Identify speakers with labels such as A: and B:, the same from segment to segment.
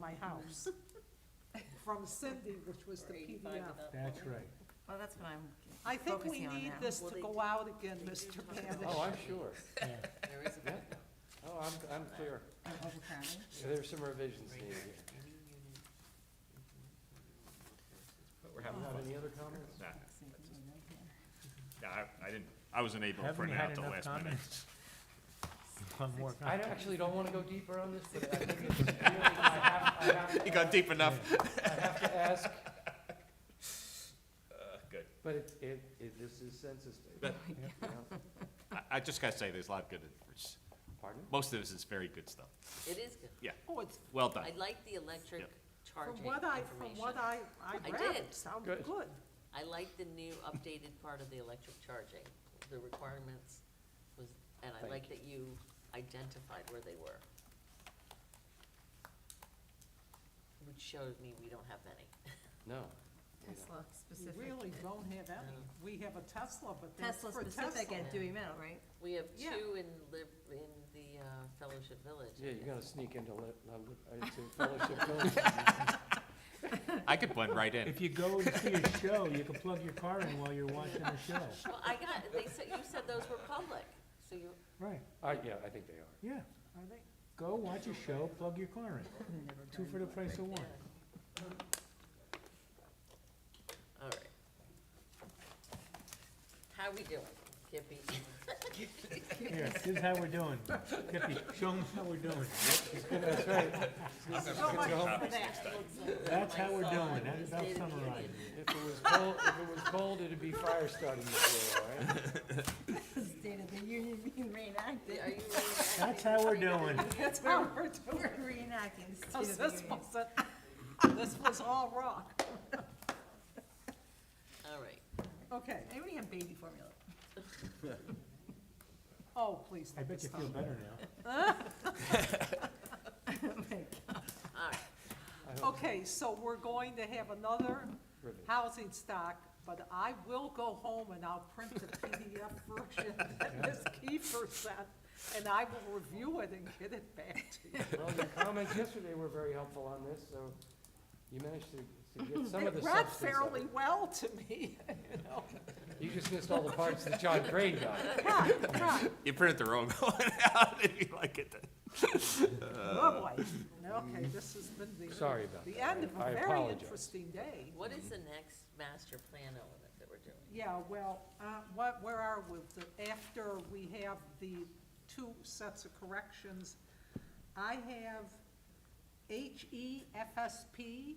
A: my house from Cindy, which was the PDF.
B: That's right.
C: Well, that's what I'm
A: I think we
C: focusing on
A: need
C: now.
A: this to go out again, Mr.
B: Oh,
A: Banish.
B: I'm sure.
D: Yeah.
E: There is a
B: Yeah. Oh, I'm, I'm clear.
C: On overcrowding.
B: There's some revisions needed.
F: But we're having
B: Not
F: fun.
B: any other comments?
F: Nah,
C: See if we know here.
F: nah, I, I didn't, I wasn't able to
D: Haven't
F: print it
D: had
F: out the
D: enough
F: last minute.
D: comments. One more
B: I
D: comment.
B: don't- actually don't want to go deeper on this, but I think it's really, I have, I have to
F: You got
B: ask-
F: deep enough.
B: I have to ask,
F: Uh, Good.
B: but it, it, it, this is census data.
F: But-
B: you know.
F: I, I just gotta say, there's a lot of good, it's-
B: Pardon?
F: most of this is very good stuff.
E: It is good.
A: Oh, it's,
F: Well done.
E: I like the electric
F: Yep.
A: from
E: charging
A: what I, from what
E: information.
A: I, I
E: I
A: read,
E: did.
A: it sounded
B: Good.
A: good.
E: I like the new updated part of the electric charging. The requirements was, and I
B: Thank
E: like that you identified where they were. Which shows me we don't have many.
B: No. we don't.
C: Tesla
A: You
C: specific.
A: really don't have any.
E: No.
A: We have a Tesla, but that's
C: Tesla
A: for
C: specific
A: Tesla.
C: at Dewey Middle, right?
E: We have
A: Yeah.
E: two in Lib, in the uh, Fellowship Village.
B: Yeah,
E: and
B: you're gonna
E: it's-
B: sneak into, lit- uh, lit- into fellowship building.
F: I could blend right in.
D: If you go and see a show, you can plug your car in while you're watching the show.
E: Well, I got, they said, you said those were public, so you,
D: Right,
B: Uh, yeah, I think they are.
D: yeah.
A: Are they?
D: Go watch a show, plug your car in.
C: Never
D: Two for the price of
E: yeah.
D: one.
E: All right. How we doing? Kippy?
D: Here, this is how we're doing. Kippy, show 'em how we're doing.
B: That's right.
A: So much
B: go.
A: for that.
D: That's how we're
E: My son
D: doing. That
E: is
D: about
E: State of the
D: summarizes
E: Union.
B: If it was cold, if it was cold, it'd be fire starting this year, all right?
C: State of the Union being reenacted.
E: Are you ready?
D: That's how we're doing.
A: That's how we're
C: We're
A: doing.
C: reenacting the State of
A: This
C: the Union.
A: wasn't, this was all wrong.
E: All right.
A: Okay.
C: Anybody have baby formula?
A: Oh, please.
D: I
A: let me
D: bet you
A: stop.
D: feel better now.
E: All right.
B: I hope
A: Okay, so we're going to have another
B: so. Ribbon.
A: housing stock, but I will go home and I'll print the PDF version that Ms. Kiefer sent, and I will review it and get it back to you.
B: Well, your comments yesterday were very helpful on this, so you managed to, to get some of the
A: It read
B: substance of
A: fairly
B: it.
A: well to me, you know.
B: You just missed all the parts that John Crane got.
A: Right, right.
F: You printed the wrong one out, if you like it.
A: Oh, boy. Okay, this has been the.
B: Sorry about
A: The
B: that.
A: end of
B: I- I
A: a very
B: apologize.
A: interesting day.
E: What is the next master plan element that we're doing?
A: Yeah, well, uh, what, where are we? The- After we have the two sets of corrections, I have E HEFSP,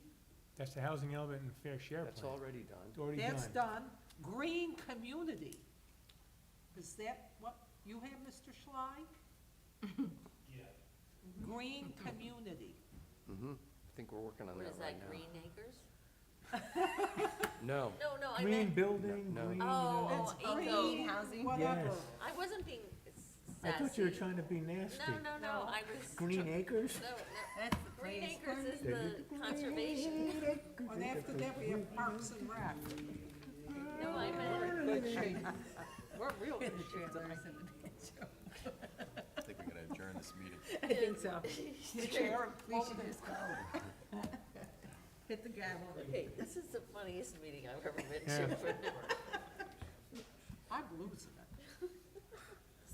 D: That's the housing element and fair share
B: That's
D: plan.
B: already done.
D: It's already
A: that's
D: done.
A: done. Green Community, is that what you have, Mr. Schley? Yeah. Green Community.
B: Mm-hmm. I think we're working on
E: What
B: that
E: is
B: right
E: that, Green Acres?
B: now. No,
E: No, no, I
D: Green
E: meant,
D: building,
B: No, no.
D: green.
E: oh,
A: That's
E: oh, eco.
A: green,
C: housing?
A: Whatever.
D: Yes.
E: I wasn't being
D: I
E: sassy.
D: thought you were trying to be nasty.
E: No, no, no,
A: No.
E: I was.
D: Green
E: tr-
D: acres?
E: No, no.
C: That's the
E: Green
C: place.
E: Acres is the conservation.
A: And after that, we have Parks and Rec.
E: No, I meant,
A: Good shape. We're real
C: The
A: good shape.
C: trailers and the banjo.
G: I think we're gonna adjourn this meeting.
C: I think so.
A: The chair
C: We should just go. Hit the gavel.
E: okay, this is the funniest meeting I've ever been
D: Yeah.
E: to.
A: I'm losing it.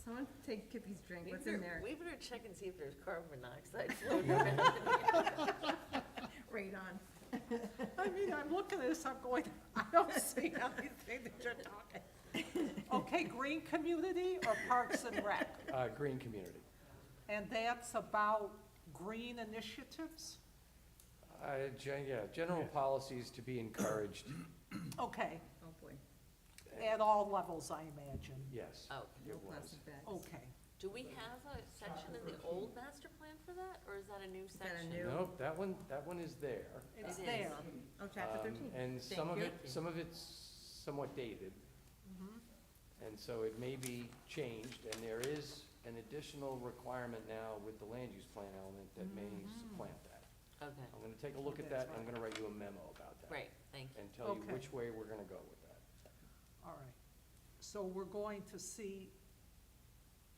C: Someone take Kippy's drink.
E: We
C: What's in
E: better-
C: there?
E: We better check and see if there's carbon monoxide floating around.
C: Radon.
A: I mean, I'm looking at this, I'm going, I don't see anything that you're talking. Okay, green community or Parks and Rec?
B: uh, green community.
A: And that's about green initiatives?
B: Uh, gen, yeah, general policies to be encouraged,
A: Okay,
C: Oh, boy.
A: at all levels, I imagine.
B: yes,
E: Oh,
B: it
C: No
B: was.
C: plastic bags.
A: Okay.
E: do we have a section in the old master plan for that, or is that a new
C: that a
E: section?
C: new-
B: Nope, that one, that one is there.
A: It's
E: It is.
A: there.
C: Oh, chapter
B: Um,
C: thirteen.
B: And some
E: Thank
B: of
E: you.
B: it, some of it's somewhat dated. And so it may be changed, and there is an additional requirement now with the land use plan element that may supplant that.
E: Okay,
B: I'm gonna take a look at that,
A: That's
B: and I'm gonna write you a memo about that.
E: great, thank you.
B: And tell you
A: Okay.
B: which way we're gonna go with that.
A: All right. So we're going to see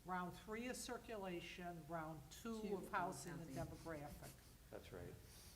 A: round three of circulation, round two
C: Two
A: of
C: of
A: housing and
C: housing.
A: demographic.
B: That's right.